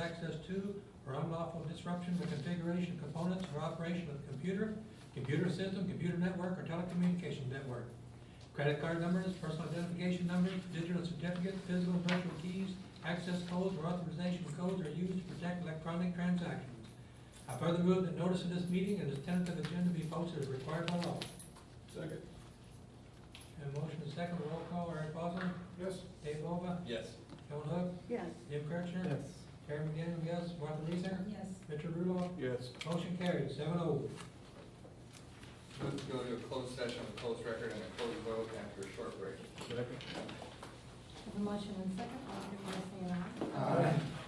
access to or unlawful disruption of configuration, components, or operation of computer, computer system, computer network, or telecommunications network. Credit card numbers, personal identification numbers, digital certificates, physical and virtual keys, access codes, or authorization codes are used to protect electronic transactions. I further move that notice of this meeting and its tentative agenda be posted as required by law. Second. And motion is second, roll call, Eric Bosler, Yes. Dave Bova, Yes. Joan Hook, Yes. Jim Kirchner. Yes. Terry McDaniel, yes. Martha Reeser, Yes. Richard Rudolph. Yes. Motion carried, seven oh. Move to go to a closed session, a closed record, and a closed vote after a short break. Second. Have a motion and second, all in favor, say aye. Aye.